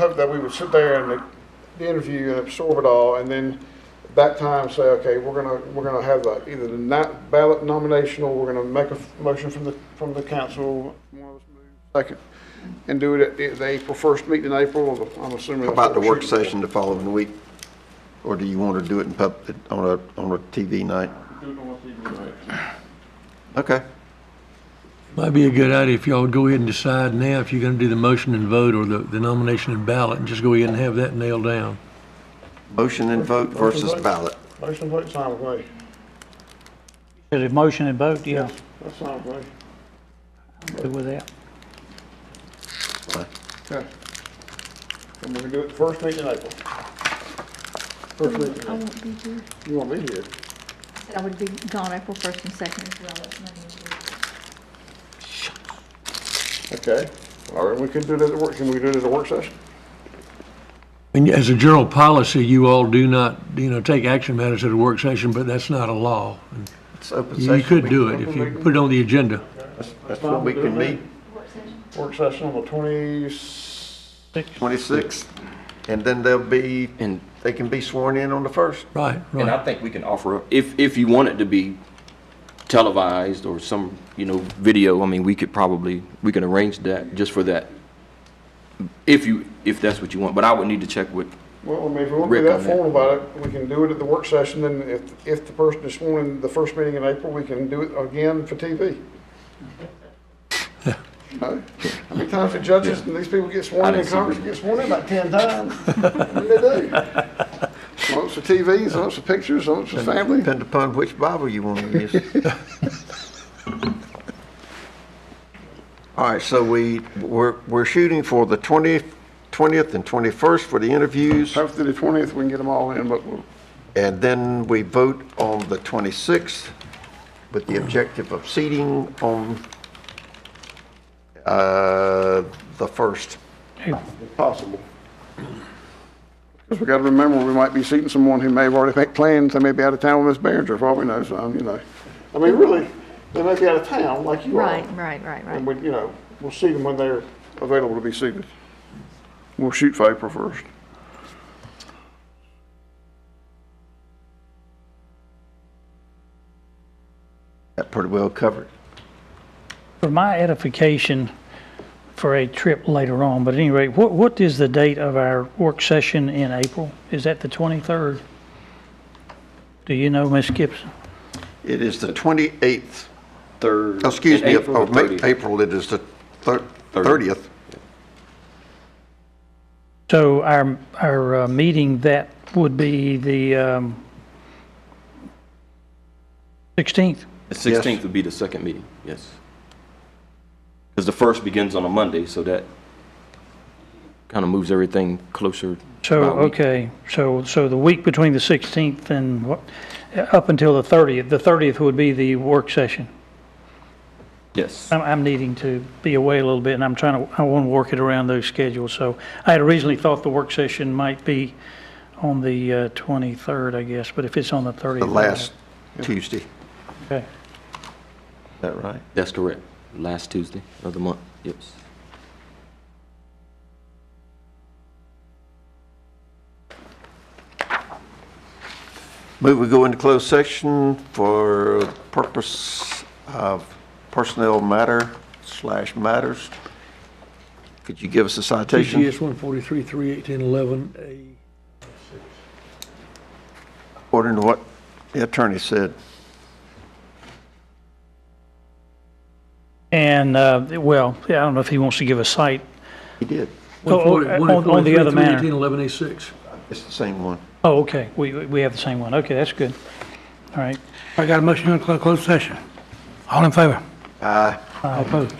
hope that we would sit there and the interview and absorb it all, and then that time say, okay, we're gonna, we're gonna have the- either the na- ballot nomination, or we're gonna make a f- motion from the, from the council. one of us move Second, and do it at the- the April first meeting in April, I'm assuming. How that's what about the we're work shooting for. session the following week? Or do you want to do it in pub, on a, on a TV night? Okay. Might be a good idea if y'all go ahead and decide now if you're gonna do the motion and vote or the, the nomination and ballot, and just go ahead and have that nailed down. Motion and vote versus vote. ballot. Motion, vote, sign with me. Is it motion and vote? Yeah, That's sign with me. good with that. Okay. And we're gonna do it the first meeting in April. First meeting, in I April. won't be here. you want me here? Said I would be gone April first and second as well. That's not easy. Okay, all right, we can do it at the work, can we do it at the work session? And as a general policy, you all do not, you know, take action matters at a work session, but that's not a law. It's open You session. you could do it if you put it on the agenda. That's what we can meet, Work session on the twenty, 26. And then they'll be, And- they can be sworn in on the first. Right, And I right. think we can offer, up- if, if you want it to be televised or some, you know, video, I mean, we could probably, we can arrange that just for that. If you, if that's what you want, but I would need to check with, Well, I mean, if we want to be Rick that on that. formal about it, we can do it at the work session, and if, if the person is sworn in the first meeting in April, we can do it again for TV. No? How many times the judges and these people get I sworn in, didn't see Congress Rick. gets sworn in about ten times? What do they do? Lots of TVs, lots of pictures, lots of family. Depend upon which Bible you want to use. All right, so we, we're, we're shooting for the 20th, 20th and 21st for the interviews. Hopefully the twentieth, we can get them all in, but we'll- And then we vote on the 26th with the objective of seating on uh, the 1st. if possible. Because we gotta remember, we might be seating someone who may have already made plans, they may be out of town with Miss Behringer, for all we know, so, um, you know. I mean, really, they may be out of town, like you are. Right, right, right, And right. we, you know, we'll see them when they're available to be seated. We'll shoot for April first. That pretty well covered. For my edification, for a trip later on, but at any rate, what, what is the date of our work session in April? Is that the 23rd? Do you know, Ms. Gibson? It is the 28th, third. oh, excuse in me, April of the Ma- 30th. April, it is the thir- Thirty. 30th. So our, our uh, meeting, that would be the um, 16th? The sixteenth would be the second meeting, yes. Because the first begins on a Monday, so that kind of moves everything closer. So, about a week. okay, so, so the week between the 16th and what, up until the 30th, the 30th would be the work session. Yes, I'm, I'm needing to be away a little bit, and I'm trying to, I want to work it around those schedules, so I had originally thought the work session might be on the uh, 23rd, I guess, but if it's on the 30th. The last Tuesday. Is Okay. that right? that's correct. Last Tuesday of the month, yes. Move we go into closed session for purpose of personnel matter slash matters. Could you give us a citation? TCS one forty-three, three eighteen, eleven, A. According to what the attorney said. And, uh, well, yeah, I don't know if he wants to give a site. He did. Oh, oh, uh, on- on the other matter. 143, 318, 11A6. It's the same one. Oh, okay, we, we have the same one, okay, that's good. All right, I got a motion to close closed session. All in favor? Aye. All opposed?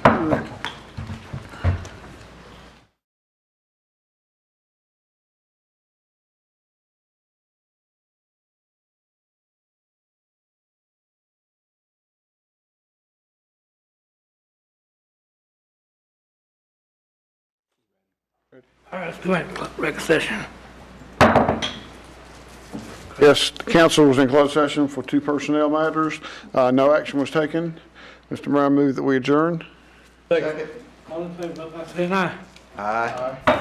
All right, let's go ahead, and rec session. Yes, the council was in closed session for two personnel matters. Uh, no action was taken. Mr. Mayor, I move that we adjourn. All in favor, vote by saying aye. Aye.